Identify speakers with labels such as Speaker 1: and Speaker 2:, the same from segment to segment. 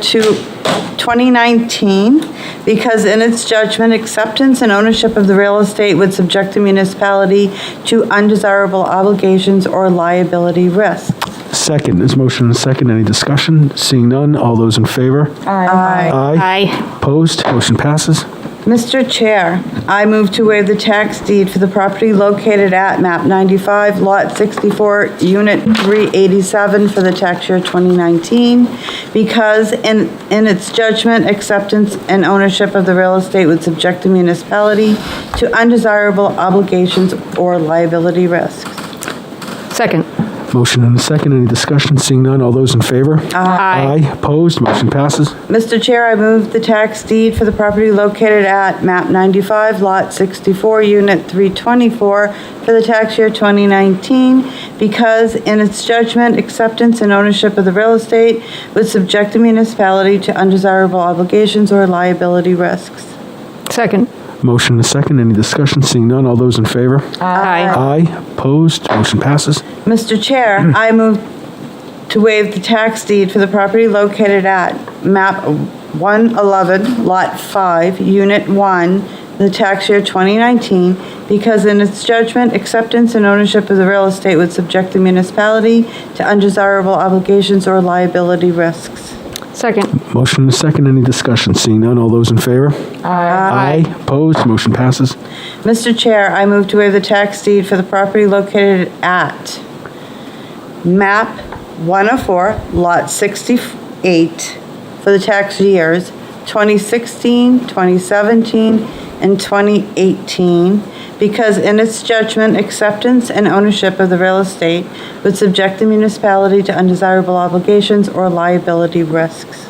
Speaker 1: to 2019 because in its judgment, acceptance and ownership of the real estate would subject the municipality to undesirable obligations or liability risk.
Speaker 2: Second, is motion and second, any discussion? Seeing none, all those in favor?
Speaker 1: Aye.
Speaker 2: Aye. Opposed, motion passes.
Speaker 1: Mr. Chair, I move to waive the tax deed for the property located at MAP 95, Lot 64, Unit 387 for the tax year 2019, because in, in its judgment, acceptance and ownership of the real estate would subject the municipality to undesirable obligations or liability risks.
Speaker 3: Second.
Speaker 2: Motion and second, any discussion? Seeing none, all those in favor? Aye. Opposed, motion passes.
Speaker 1: Mr. Chair, I move the tax deed for the property located at MAP 95, Lot 64, Unit 324, for the tax year 2019, because in its judgment, acceptance and ownership of the real estate would subject the municipality to undesirable obligations or liability risks.
Speaker 3: Second.
Speaker 2: Motion and second, any discussion? Seeing none, all those in favor?
Speaker 3: Aye.
Speaker 2: Aye. Opposed, motion passes.
Speaker 1: Mr. Chair, I move to waive the tax deed for the property located at map 111, lot 5, unit 1, the tax year 2019, because in its judgment, acceptance and ownership of the real estate would subject the municipality to undesirable obligations or liability risks.
Speaker 3: Second.
Speaker 2: Motion and second, any discussion? Seeing none, all those in favor? Aye. Opposed, motion passes.
Speaker 1: Mr. Chair, I move to waive the tax deed for the property located at MAP 104, Lot 68, for the tax years 2016, 2017, and 2018, because in its judgment, acceptance and ownership of the real estate would subject the municipality to undesirable obligations or liability risks.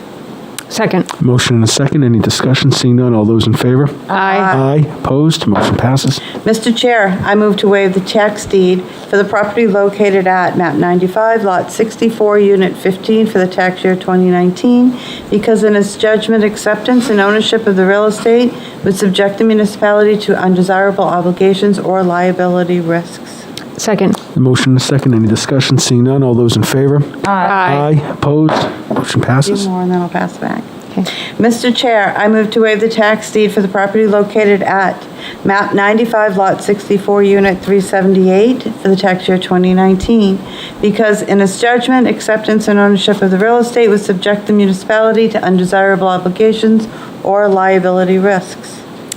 Speaker 3: Second.
Speaker 2: Motion and second, any discussion? Seeing none, all those in favor?
Speaker 3: Aye.
Speaker 2: Aye. Opposed, motion passes.
Speaker 1: Mr. Chair, I move to waive the tax deed for the property located at MAP 95, Lot 64, Unit 15, for the tax year 2019, because in its judgment, acceptance and ownership of the real estate would subject the municipality to undesirable obligations or liability risks.
Speaker 3: Second.
Speaker 2: Motion and second, any discussion? Seeing none, all those in favor?
Speaker 3: Aye.
Speaker 2: Opposed, motion
Speaker 1: Two
Speaker 2: passes.
Speaker 1: more, and then I'll pass it back.
Speaker 3: Okay.
Speaker 1: Mr. Chair, I move to waive the tax deed for the property located at MAP 95, Lot 64, Unit 378, for the tax year 2019, because in its judgment, acceptance and ownership of the real estate would subject the municipality to undesirable obligations or liability risks.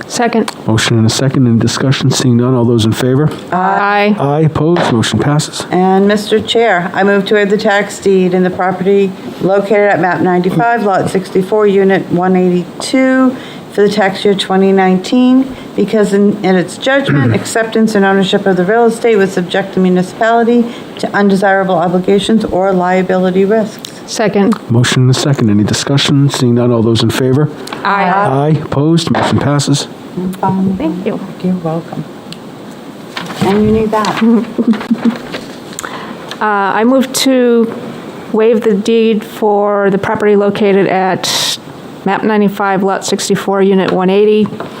Speaker 3: Second.
Speaker 2: Motion and a second, any discussion? Seeing none, all those in favor?
Speaker 3: Aye.
Speaker 2: Aye, opposed, motion passes.
Speaker 1: And Mr. Chair, I move to waive the tax deed in the property located at MAP 95, Lot 64, Unit 182, for the tax year 2019, because in in its judgment, acceptance and ownership of the real estate would subject the municipality to undesirable obligations or liability risks.
Speaker 3: Second.
Speaker 2: Motion and a second, any discussion? Seeing none, all those in favor?
Speaker 3: Aye.
Speaker 2: Aye, opposed, motion passes.
Speaker 3: Thank you.
Speaker 1: You're welcome. Um, And you need that.
Speaker 3: Uh, I move to waive the deed for the property located at MAP 95, Lot 64, Unit 180,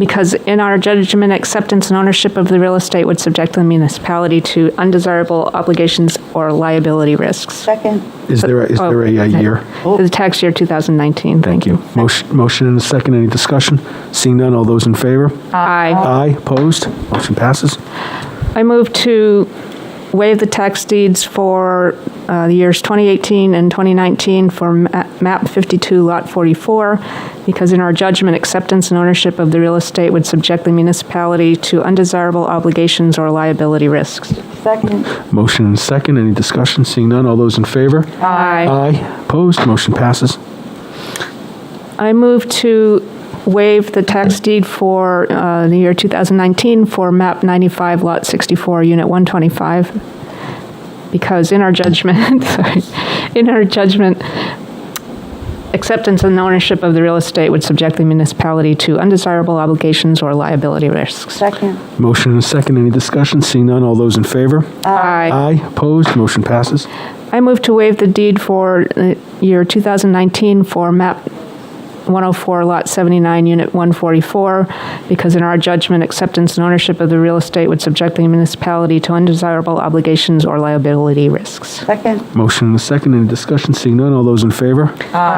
Speaker 3: because in our judgment, acceptance and ownership of the real estate would subject the municipality to undesirable obligations or liability risks.
Speaker 1: Second.
Speaker 2: Is there, a- is there a uh,
Speaker 3: Oh,
Speaker 2: year?
Speaker 3: The tax year 2019. Thank you.
Speaker 2: Motion motion and a second, any discussion? Seeing none, all those in favor?
Speaker 3: Aye.
Speaker 2: Aye, opposed, motion passes.
Speaker 3: I move to waive the tax deeds for uh, the years 2018 and 2019 for ma- MAP 52, Lot 44, because in our judgment, acceptance and ownership of the real estate would subject the municipality to undesirable obligations or liability risks.
Speaker 1: Second.
Speaker 2: Motion and a second, any discussion? Seeing none, all those in favor?
Speaker 3: Aye.
Speaker 2: Aye, opposed, motion passes.
Speaker 3: I move to waive the tax deed for uh, the year 2019 for MAP 95, Lot 64, Unit 125, because in our judgment, sorry, in our judgment, acceptance and ownership of the real estate would subject the municipality to undesirable obligations or liability risks.
Speaker 1: Second.
Speaker 2: Motion and a second, any discussion? Seeing none, all those in favor?
Speaker 3: Aye.
Speaker 2: Aye, opposed, motion passes.
Speaker 3: I move to waive the deed for uh, year 2019 for MAP 104, Lot 79, Unit 144, because in our judgment, acceptance and ownership of the real estate would subject the municipality to undesirable obligations or liability risks.
Speaker 1: Second.
Speaker 2: Motion and a second, any discussion? Seeing none, all those in favor?